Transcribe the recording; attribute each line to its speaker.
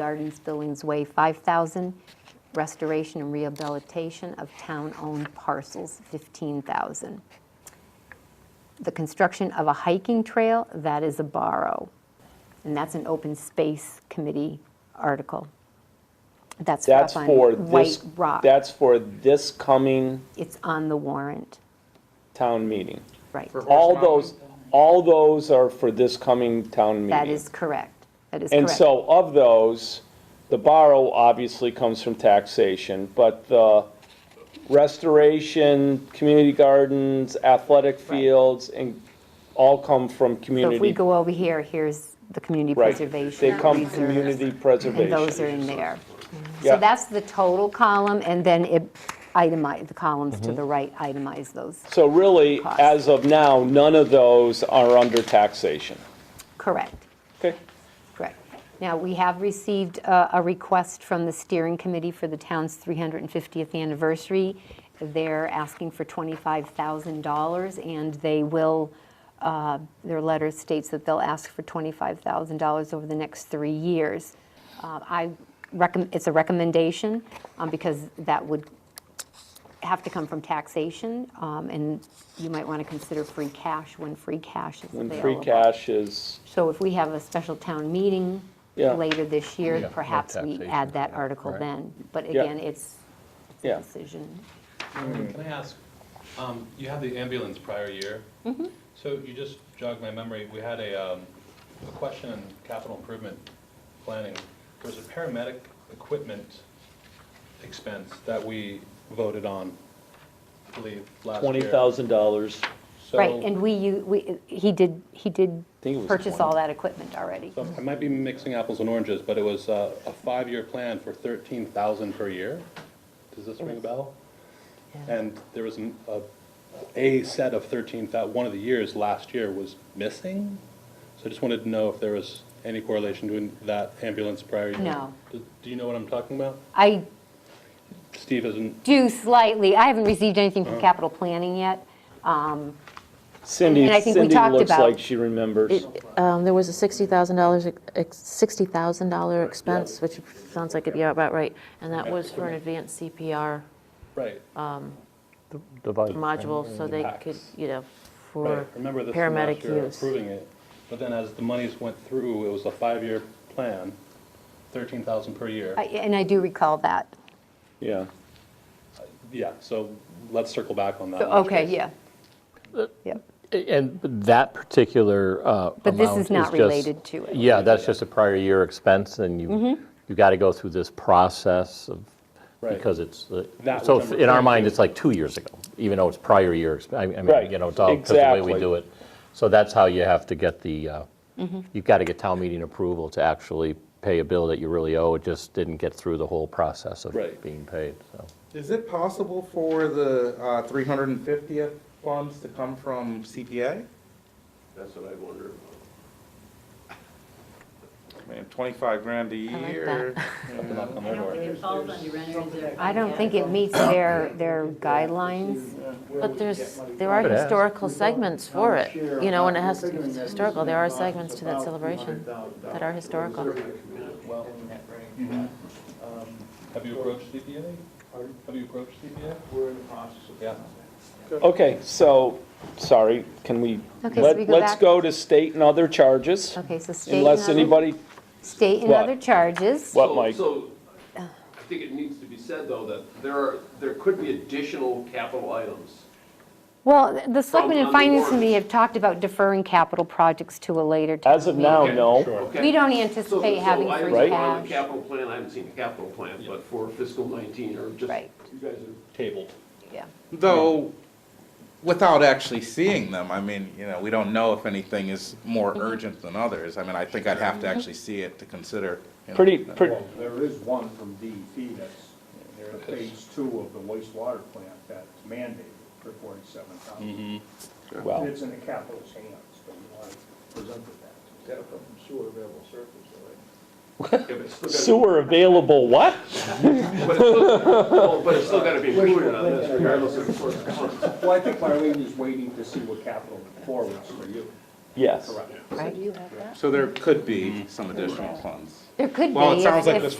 Speaker 1: Gardens Billings Way 5,000, restoration and rehabilitation of town-owned parcels 15,000. The construction of a hiking trail, that is a borrow. And that's an open space committee article. That's
Speaker 2: That's
Speaker 1: up on
Speaker 2: for this,
Speaker 1: White Rock.
Speaker 2: that's for this coming
Speaker 1: It's on the warrant,
Speaker 2: town meeting.
Speaker 1: right.
Speaker 2: All those, all those are for this coming town meeting.
Speaker 1: That is correct. That is correct.
Speaker 2: And so of those, the borrow obviously comes from taxation, but the restoration, community gardens, athletic fields, and all come from
Speaker 1: So if we
Speaker 2: community.
Speaker 1: go over here, here's the community
Speaker 2: right.
Speaker 1: preservation.
Speaker 2: They come
Speaker 1: reserve,
Speaker 2: community
Speaker 1: And
Speaker 2: preservation.
Speaker 1: those are in there.
Speaker 2: Yeah.
Speaker 1: So that's the total column, and then it itemize, the columns to the right itemize those.
Speaker 2: So really,
Speaker 1: Cost.
Speaker 2: as of now, none of those are under taxation.
Speaker 1: Correct,
Speaker 2: Okay?
Speaker 1: correct. Now, we have received uh, a request from the steering committee for the town's 350th anniversary. They're asking for $25,000, and they will, uh, their letter states that they'll ask for $25,000 over the next three years. Uh, I recommend, it's a recommendation, um, because that would have to come from taxation, um, and you might want to consider free cash when free cash is
Speaker 2: When
Speaker 1: available.
Speaker 2: free cash is,
Speaker 1: So if we have a special town meeting
Speaker 2: Yeah.
Speaker 1: later this year,
Speaker 3: no
Speaker 1: perhaps we
Speaker 3: taxation,
Speaker 1: add that
Speaker 3: yeah,
Speaker 1: article
Speaker 3: right.
Speaker 1: then. But
Speaker 2: Yeah.
Speaker 1: again, it's it's a
Speaker 2: Yeah.
Speaker 1: decision.
Speaker 4: Can I ask, um, you had the ambulance prior year?
Speaker 1: Mm-hmm.
Speaker 4: So you just jogged my memory, we had a, um, a question in capital improvement planning. There was a paramedic equipment expense that we voted on, I believe, last year.
Speaker 2: Twenty thousand dollars.
Speaker 4: So-
Speaker 1: Right, and we, u- we, he did, he did
Speaker 2: think it was
Speaker 1: purchase all
Speaker 2: 20.
Speaker 1: that equipment already.
Speaker 4: So I might be mixing apples and oranges, but it was uh, a five-year plan for thirteen thousand per year. Does this ring a bell? And there was an- a, a set of thirteen thou, one of the years last year was missing? So I just wanted to know if there was any correlation to that ambulance prior year.
Speaker 1: No.
Speaker 4: Do do you know what I'm talking about?
Speaker 1: I
Speaker 4: Steve isn't,
Speaker 1: do slightly, I haven't received anything
Speaker 2: Uh-huh.
Speaker 1: from capital planning yet.
Speaker 2: Cindy,
Speaker 1: And I think we
Speaker 2: Cindy
Speaker 1: talked
Speaker 2: looks
Speaker 1: about-
Speaker 2: like she remembers.
Speaker 5: Um, There was a $60,000, ex- $60,000 expense, which sounds like it'd be about right, and that was for an advanced CPR
Speaker 4: right.
Speaker 3: Divide.
Speaker 5: module, so they could,
Speaker 4: Packs.
Speaker 5: you know,
Speaker 4: Right,
Speaker 5: for
Speaker 4: remember this from
Speaker 5: paramedic
Speaker 4: last year
Speaker 5: use.
Speaker 4: approving it, but then as the monies went through, it was a five-year plan, thirteen thousand per year.
Speaker 1: I- And I do recall that.
Speaker 2: Yeah.
Speaker 4: Yeah, so let's circle back on that. in which
Speaker 1: Okay,
Speaker 4: case.
Speaker 1: yeah. Uh, Yep.
Speaker 3: And that particular uh, amount is
Speaker 1: But this is not
Speaker 3: just-
Speaker 1: related to it. Mm-hmm.
Speaker 3: Yeah, that's just a prior year expense, and you, you got to go through this process of,
Speaker 4: Right.
Speaker 3: because it's, uh,
Speaker 4: That
Speaker 3: so
Speaker 4: was number
Speaker 3: in our
Speaker 4: 13.
Speaker 3: mind, it's like two years ago, even though it's prior year, exp- I I
Speaker 2: Right,
Speaker 3: mean, you know, it's all because of the way
Speaker 2: exactly.
Speaker 3: we do it. So that's how you have to get the, uh,
Speaker 1: Mm-hmm.
Speaker 3: you've got to get town meeting approval to actually pay a bill that you really owe. It just didn't get through the whole process of
Speaker 4: Right.
Speaker 3: being paid, so.
Speaker 6: Is it possible for the uh, 350th funds to come from CPA? That's what I wonder about. I mean, 25 grand a
Speaker 5: like
Speaker 6: year.
Speaker 4: Knock on their door.
Speaker 1: I don't think it meets their, their guidelines.
Speaker 5: But there's, there are
Speaker 3: Could ask.
Speaker 5: historical segments for it, you know, and it has, to it's historical, there are segments to that celebration that are historical.
Speaker 7: Mm-hmm.
Speaker 4: Have you approached CPA? Have you approached CPA?
Speaker 7: We're in the process of.
Speaker 4: Yeah.
Speaker 2: Okay, so, sorry, can we,
Speaker 1: Okay, so we
Speaker 2: let-
Speaker 1: go
Speaker 2: let's
Speaker 1: back?
Speaker 2: go to state and other charges.
Speaker 1: Okay, so state and
Speaker 2: Unless
Speaker 1: other,
Speaker 2: anybody,
Speaker 1: state and
Speaker 2: What?
Speaker 1: other charges.
Speaker 2: what,
Speaker 7: So-
Speaker 2: Mike?
Speaker 7: So, I think it needs to be said, though, that there are, there could be additional capital items.
Speaker 1: Well, th- the Selectmen and
Speaker 7: on the
Speaker 1: Finance
Speaker 7: warrant.
Speaker 1: Committee have talked about deferring capital projects to a later time.
Speaker 2: As of now,
Speaker 7: Okay,
Speaker 2: no.
Speaker 7: Okay.
Speaker 1: We don't
Speaker 7: So-
Speaker 1: anticipate having
Speaker 7: So I
Speaker 1: free
Speaker 2: Right.
Speaker 7: haven't on the
Speaker 1: cash.
Speaker 7: capital plan, I haven't seen the capital plan, but for fiscal 19, or just,
Speaker 1: Right.
Speaker 7: you guys are
Speaker 4: Tabled.
Speaker 1: Yeah.
Speaker 6: Though, without actually seeing them, I mean, you know, we don't know if anything is more
Speaker 1: Mm-hmm.
Speaker 6: urgent than others. I mean, I think I'd have to actually see it to consider. you know,
Speaker 2: Pretty,
Speaker 6: that.
Speaker 2: pretty,
Speaker 8: Well, there is one from DEP that's, they're at phase two of the wastewater plant that's mandated for forty-seven thousand.
Speaker 7: Mm-hmm.
Speaker 2: well,
Speaker 8: It's in the capital's hands, but you want to present it that. Is that from sewer available surface,
Speaker 7: yeah, but it's still gotta be-
Speaker 2: sewer available, what?
Speaker 7: But it's still- well, but it's still got to be included on this regardless of source of funds.
Speaker 8: Well, I think Marlene is waiting to see what capital forwards for you.
Speaker 2: Yes.
Speaker 1: Right.
Speaker 6: So there could be some additional funds.
Speaker 1: There could be.
Speaker 6: Well, it
Speaker 1: if-
Speaker 6: sounds like
Speaker 1: if-
Speaker 6: this